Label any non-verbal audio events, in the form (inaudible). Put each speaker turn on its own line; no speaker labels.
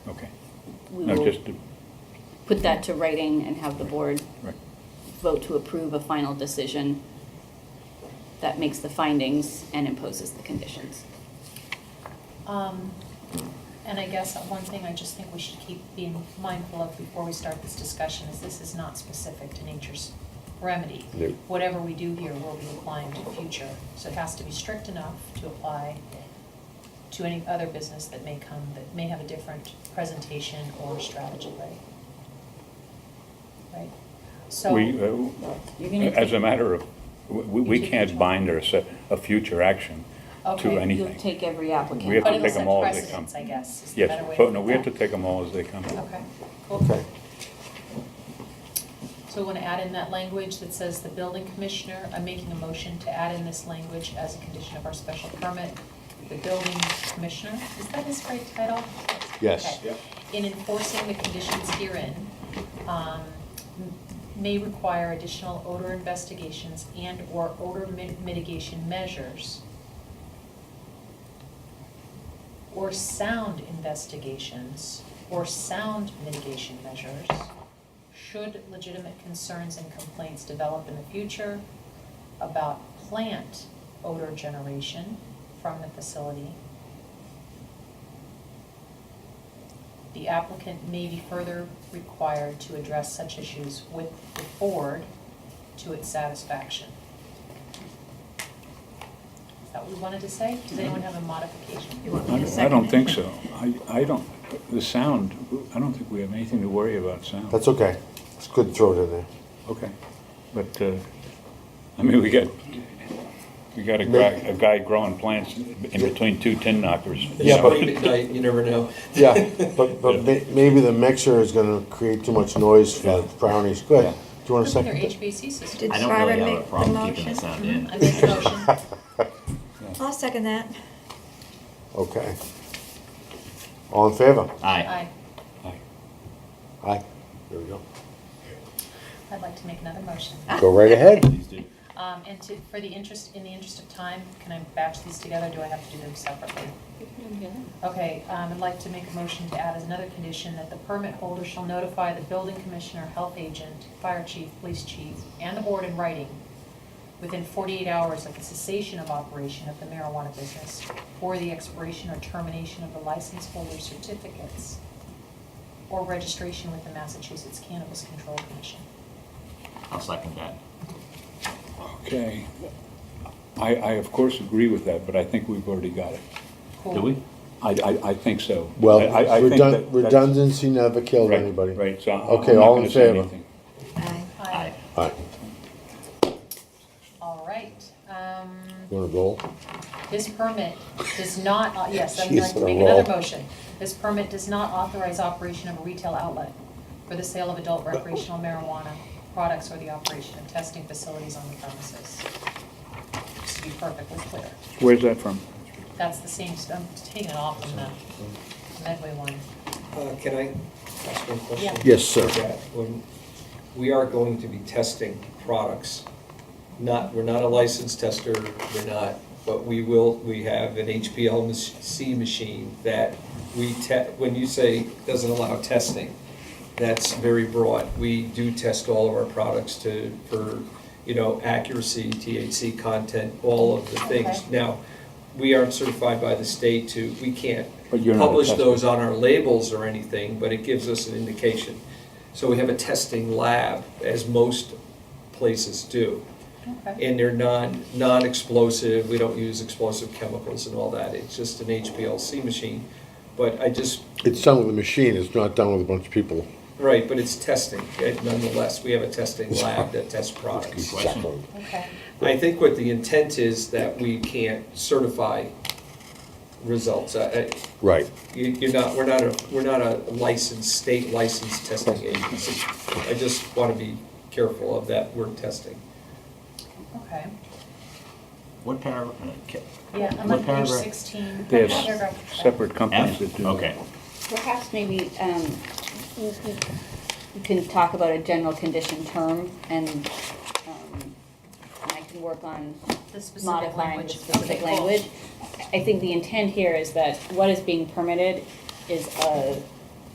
Okay.
we
No,
will
just, to-
put that to writing and have the board
right.
vote to approve a final decision that makes the findings and imposes the conditions.
Um, And I guess one thing I just think we should keep being mindful of before we start this discussion is this is not specific to nature's remedy.
No.
Whatever we do here will be applying to future, so it has to be strict enough to apply to any other business that may come, that may have a different presentation or strategy, right? Right? So,
We, uh,
You're gonna
as a matter of, we, we
You take
can't
control.
bind or set a future action
Okay,
to
you'll
You'll
anything.
take every
We have
applicant.
but
to
it'll
take them
set
all as they come.
precedence, I guess, is the better way
Yes,
to
but no,
put
we have to
that.
take them all as they come.
Okay,
Okay.
cool. So we want to add in that language that says the building commissioner, I'm making a motion to add in this language as a condition of our special permit. The building commissioner, is that his right title?
Yes.
Okay. In enforcing the conditions herein, um, m- may require additional odor investigations and/or odor mi- mitigation measures or sound investigations or sound mitigation measures should legitimate concerns and complaints develop in the future about plant odor generation from the facility. The applicant may be further required to address such issues with the board to its satisfaction. Is that what we wanted to say? Does anyone have a modification?
You want
I
me
don't-
to
I
second
don't
it?
think so. I, I don't, the sound, I don't think we have anything to worry about sound.
That's okay. It's good to throw it in there.
Okay. But, uh, I mean, we got, we got a guy, a guy growing plants in between two tin knockers.
Yeah, but-
Late at night, you never know.
Yeah, (laughs) but, but may- maybe the mixer is gonna create too much noise for the brownies. Go ahead. Do you want a
Look at their
second?
HVAC system.
Did-
I don't
Sharon
really
make
have a
the
problem
motion?
keeping the sound in.
I make a
(laughs)
motion.
(laughs)
I'll second that.
(laughs) Okay. All in favor?
Aye.
Aye.
Aye.
Aye. There we
(laughs)
go.
I'd like to make another motion.
Go right ahead.
Please do.
Um, and to, for the interest, in the interest of time, can I batch these together? Do I have to do them separately? Okay, um, I'd like to make a motion to add as another condition that the permit holder shall notify the building commissioner, health agent, fire chief, police chief, and the board in writing within forty-eight hours of the cessation of operation of the marijuana business or the expiration or termination of the license holder certificates or registration with the Massachusetts Cannabis Control Commission.
I'll second that.
Okay. I, I of course agree with that, but I think we've already got it.
Cool.
Do we?
I, I, I think so.
Well,
I- I- I think
redun-
that- that's-
redundancy never killed
Right,
anybody.
Right, so I'm I'm not
Okay, all
going
in
to say
favor?
anything.
Aye.
Aye.
Aye.
All right, um,
You wanna roll?
This permit does not, uh, yes, I'm going
Jeez,
to
what a
make another
roll.
motion. This permit does not authorize operation of a retail outlet for the sale of adult recreational marijuana products or the operation of testing facilities on the premises. Just to be perfectly clear,
Where's that from?
that's the same, I'm taking it off from the Medway one.
(laughs) Uh, Can I ask one question?
Yeah.
Yes, sir.
Yeah, when- We are going to be testing products. Not, we're not a licensed tester, we're not, but we will, we have an HPLC machine that we te, when you say doesn't allow testing, that's very broad. We do test all of our products to, for, you know, accuracy, THC content, all of the things.
Okay.
Now, we aren't certified by the state to, we can't
But you're not a
publish
tester.
those on our labels or anything, but it gives us an indication. So we have a testing lab, as most places do.
Okay.
And they're non, non-explosive, we don't use explosive chemicals and all that. It's just an HPLC machine. But I just,
It's done with a machine. It's not done with a bunch of people.
right, but it's testing eh, nonetheless. We have a testing lab that tests products.
Question?
Okay,
I think what the intent is that we can't certify results. I- I-
Right.
You- You're not, we're not a, we're not a licensed, state licensed testing agency. I just want to be careful of that word testing.
okay.
What paragraph? uh, ca-
Yeah, I'm on
what
page
paragraph?
sixteen.
They
Paragraph
have separate companies that
F?
do.
Okay.
Perhaps maybe um, we can talk about a general condition term and um, and I can work on
The specific
modifying the
language.
specific
Okay, cool.
language. I I think the intent here is that what is being permitted is a